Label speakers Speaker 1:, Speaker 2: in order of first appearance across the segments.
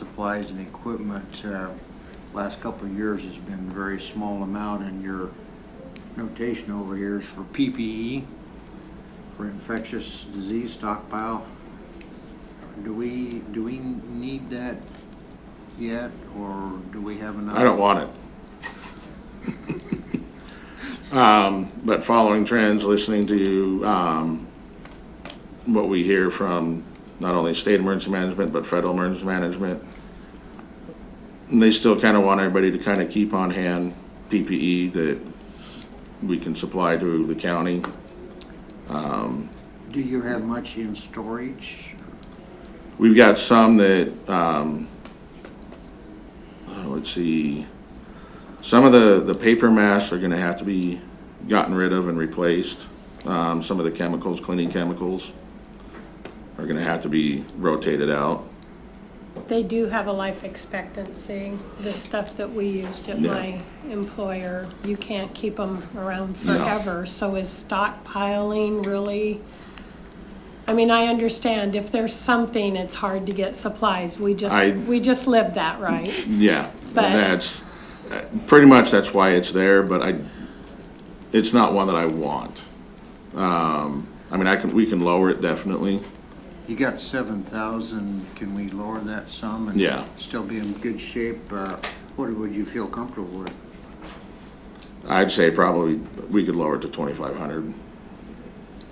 Speaker 1: supplies and equipment, uh, last couple of years has been a very small amount, and your notation over here is for PPE, for infectious disease stockpile. Do we, do we need that yet, or do we have enough?
Speaker 2: I don't want it. Um, but following trends, listening to, um, what we hear from not only state emergency management, but federal emergency management. And they still kinda want everybody to kinda keep on hand PPE that we can supply to the county.
Speaker 1: Do you have much in storage?
Speaker 2: We've got some that, um, uh, let's see, some of the, the paper masks are gonna have to be gotten rid of and replaced. Um, some of the chemicals, cleaning chemicals are gonna have to be rotated out.
Speaker 3: They do have a life expectancy. The stuff that we used at
Speaker 2: Yeah.
Speaker 3: my employer, you can't keep them around forever. So is stockpiling really? I mean, I understand if there's something, it's hard to get supplies. We just,
Speaker 2: I-
Speaker 3: we just live that, right?
Speaker 2: Yeah, and
Speaker 3: But-
Speaker 2: that's, uh, pretty much that's why it's there, but I, it's not one that I want. Um, I mean, I can, we can lower it definitely.
Speaker 1: You got seven thousand, can we lower that sum? and
Speaker 2: Yeah.
Speaker 1: Still be in good shape, uh, what would you feel comfortable with?
Speaker 2: I'd say probably, we could lower it to twenty-five hundred.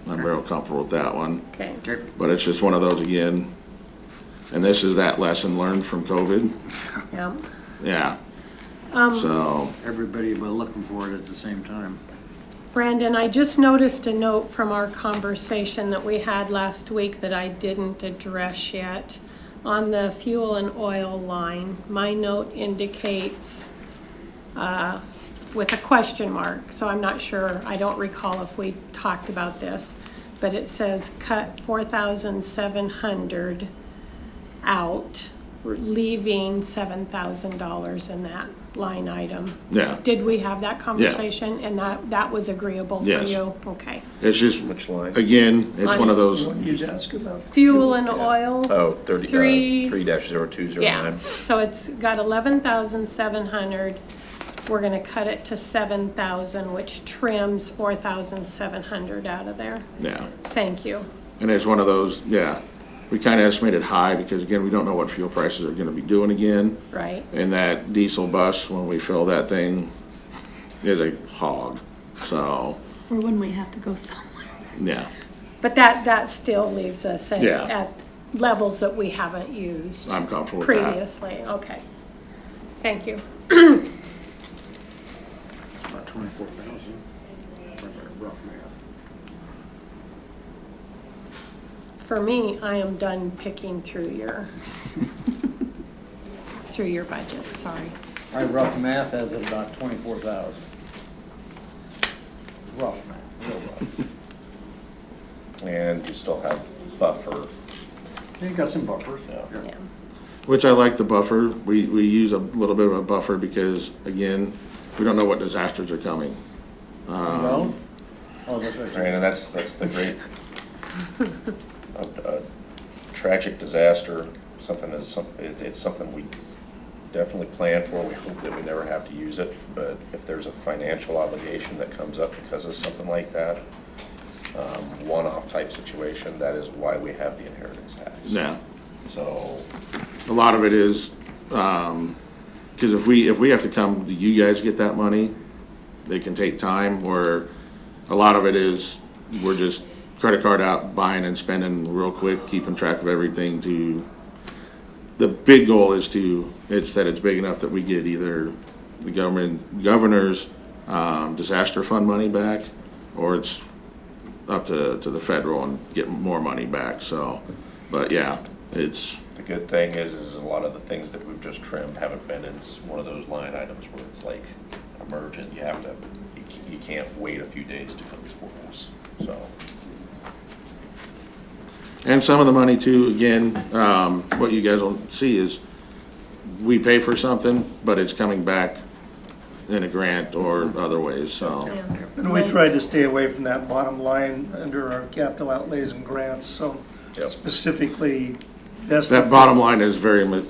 Speaker 2: I'm real comfortable with that one,
Speaker 3: Okay.
Speaker 1: Okay,
Speaker 2: but it's just one of those again. And this is that lesson learned from COVID,
Speaker 3: Yeah.
Speaker 2: yeah. So,
Speaker 1: Everybody was looking for it at the same time.
Speaker 3: Brandon, I just noticed a note from our conversation that we had last week that I didn't address yet. On the fuel and oil line, my note indicates, uh, with a question mark, so I'm not sure, I don't recall if we talked about this, but it says cut four thousand seven hundred out, leaving seven thousand dollars in that line item.
Speaker 2: yeah,
Speaker 3: Did we have that conversation? And that, that was agreeable for
Speaker 2: Yes.
Speaker 3: you? Okay.
Speaker 2: it's just,
Speaker 4: Which line?
Speaker 2: again, it's one of those,
Speaker 5: What you ask about?
Speaker 3: Fuel and oil,
Speaker 4: Oh, thirty,
Speaker 3: Three.
Speaker 4: uh, three dash zero two zero
Speaker 3: yeah.
Speaker 4: nine.
Speaker 3: So it's got eleven thousand seven hundred. We're gonna cut it to seven thousand, which trims four thousand seven hundred out of there.
Speaker 2: yeah.
Speaker 3: Thank you.
Speaker 2: And it's one of those, yeah. We kinda estimated high because again, we don't know what fuel prices are gonna be doing again.
Speaker 3: Right?
Speaker 2: And that diesel bus, when we fill that thing, is a hog, so,
Speaker 6: Or when we have to go somewhere.
Speaker 2: yeah.
Speaker 3: But that, that still leaves us at,
Speaker 2: Yeah.
Speaker 3: at levels that we haven't used
Speaker 2: I'm comfortable with that.
Speaker 3: previously. Okay. Thank you.
Speaker 1: About twenty-four thousand. Rough math.
Speaker 3: For me, I am done picking through your, through your budget, sorry.
Speaker 1: My rough math has it about twenty-four thousand. Rough math, real rough.
Speaker 4: And you still have buffer.
Speaker 1: You got some buffers. Yeah.
Speaker 3: Yeah.
Speaker 2: Which I like the buffer. We, we use a little bit of a buffer because, again, we don't know what disasters are coming.
Speaker 1: Well, oh, that's
Speaker 4: Right,
Speaker 1: right.
Speaker 4: and that's, that's the great, a, a tragic disaster, something is, some- it's, it's something we definitely plan for. We hope that we never have to use it, but if there's a financial obligation that comes up because of something like that, um, one-off type situation, that is why we have the inheritance tax.
Speaker 2: Yeah,
Speaker 4: So,
Speaker 2: a lot of it is, um 'cause because if we, if we have to come, to you guys get that money, they can take time, where a lot of it is, we're just credit card out, buying and spending real quick, keeping track of everything to, the big goal is to, it's that it's big enough that we get either the government, governor's, um, disaster fund money back, or it's up to, to the federal and get more money back, so, but yeah, it's,
Speaker 4: The good thing is, is a lot of the things that we've just trimmed haven't been in s- one of those line items where it's like emergent, you have to, you ca- you can't wait a few days to come before us, so.
Speaker 2: And some of the money too, again, um, what you guys will see is we pay for something, but it's coming back in a grant or other ways, so.
Speaker 5: And we tried to stay away from that bottom line under our capital outlays and grants, so
Speaker 4: Yep.
Speaker 5: specifically. that's
Speaker 2: That bottom line is very, mi-